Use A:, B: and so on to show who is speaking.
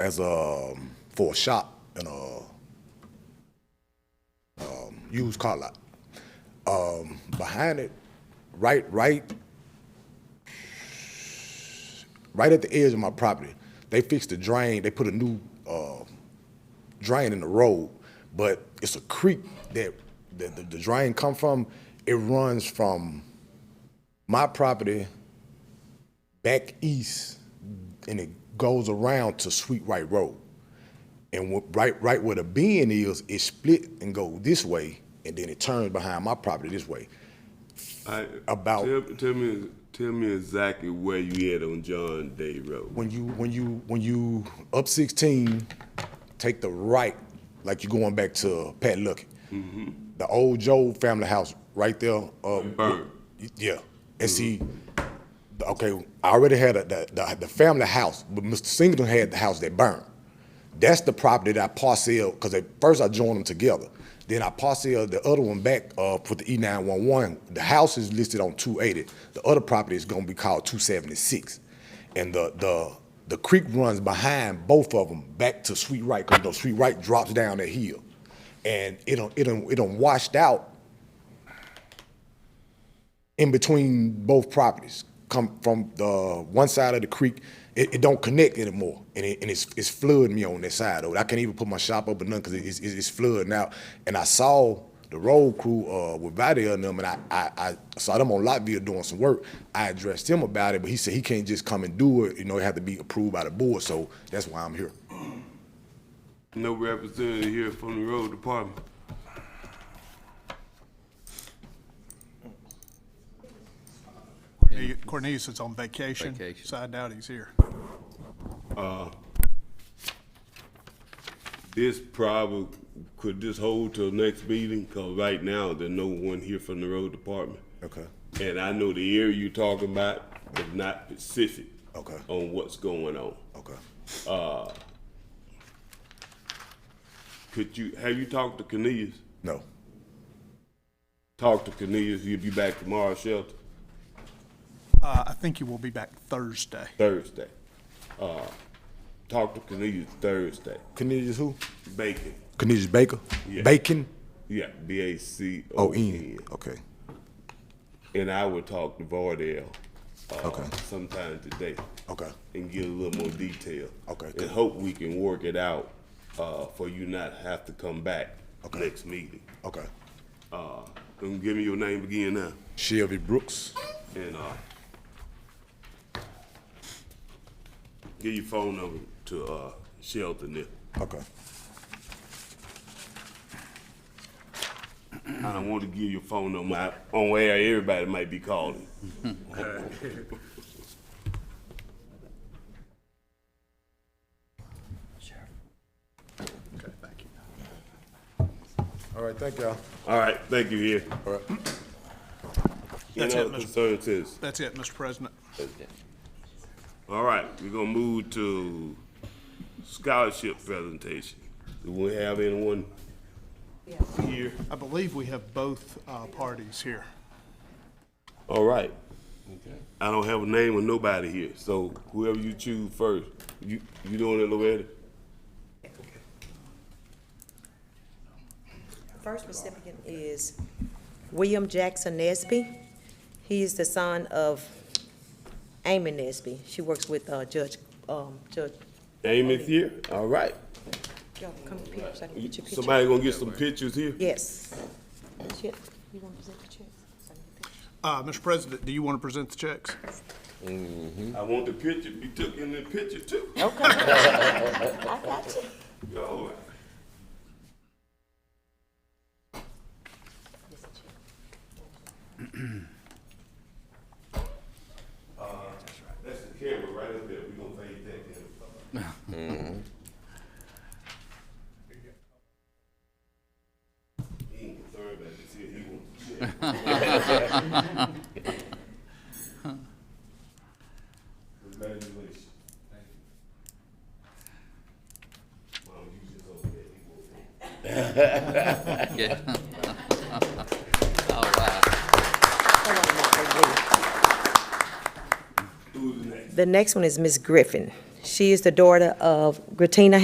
A: as um for a shop and a um, used car lot. Um, behind it, right, right, right at the edge of my property, they fixed the drain. They put a new uh, drain in the road, but it's a creek that, that the, the drain come from. It runs from my property back east and it goes around to Sweet Right Road. And wh- right, right where the bend is, it split and go this way, and then it turns behind my property this way.
B: I,
A: About-
B: tell, tell me tell me exactly where you at on John Day Road.
A: When you, when you, when you up sixteen, take the right, like you're going back to Pat Lucky. The old Joe family house right there, uh,
B: Burn.
A: Yeah, and see, the- okay, I already had a, the, the the family house, but Mr. Singleton had the house that burned. That's the property that I parcel because at first I joined them together. Then I parcel the other one back uh, for the E nine one one. The house is listed on two eighty. The other property is gonna be called two seventy six, and the the the creek runs behind both of them back to Sweet Right because the Sweet Right drops down that hill, and it don't it don't it don't washed out in between both properties. Come from the one side of the creek, it, it don't connect anymore, and it, and it's it's flooding me on that side. Of it. I can't even put my shop up or nothing because it's, it's it's flooding out. And I saw the road crew uh, with Vadia and them, and I, I I saw them on Latvia doing some work. I addressed him about it, but he said he can't just come and do it. You know, it had to be approved by the board. So that's why I'm here.
B: No representative here from the road department.
C: Cornelius- Cornelius is on vacation,
D: Vacation.
C: so I doubt he's here.
B: This probably could this hold till next meeting, cause right now there's no one here from the road department.
A: Okay.
B: And I know the area you talking about is not specific.
A: Okay.
B: On what's going on.
A: Okay.
B: Could you, have you talked to Cornelius?
A: No.
B: Talk to Cornelius, he'll be back tomorrow shelter,
C: Uh, I think he will be back Thursday.
B: Thursday. Uh, talk to Cornelius Thursday.
A: Cornelius who?
B: Bacon,
A: Cornelius Baker.
B: Yeah.
A: Bacon.
B: yeah, B A C
A: Oh,
B: O
A: Ian.
B: N.
A: Okay.
B: And I would talk to Vardell, uh,
A: Okay.
B: sometime today.
A: Okay.
B: and get a little more detail.
A: Okay, good.
B: And hope we can work it out, uh, for you not have to come back
A: Okay.
B: next meeting.
A: Okay.
B: Uh, and give me your name again now,
A: Shelby Brooks.
B: and, uh, give your phone number to, uh, Shelton there.
A: Okay.
B: I don't want to give your phone number out on air, everybody might be calling.
A: All right. Thank y'all.
B: All right, thank you, here.
A: All right.
C: That's
B: Any
C: it,
B: other
C: Mr.
B: concerns, citizens?
C: That's it, Mr. President.
B: All right, we're gonna move to scholarship presentation. Do we have anyone here?
C: I believe we have both uh, parties here.
B: All right. I don't have a name of nobody here, so whoever you choose first, you, you doing it, Loretta?
E: First recipient is William Jackson Nesby. He is the son of Amy Nesby. She works with uh, Judge, um, Judge,
B: Amy's here, all right.
E: y'all come here so I can get your picture.
B: Somebody gonna get some pictures here?
E: Yes. Chip, you want to present the check? So I can get the-
C: Uh, Mr. President, do you want to present the checks?
B: I want the picture, be took in the picture too.
E: I got you.
B: All right.
E: Yes, Chip.
B: Uh, That's the camera right up there, we gonna fade that camera. He ain't concerned about this here, he wants to check. Congratulations. Well, you just over there, he won't.
D: Yeah.
E: Come on, Mark, I believe.
B: Who's next?
E: The next one is Miss Griffin. She is the daughter of Gratina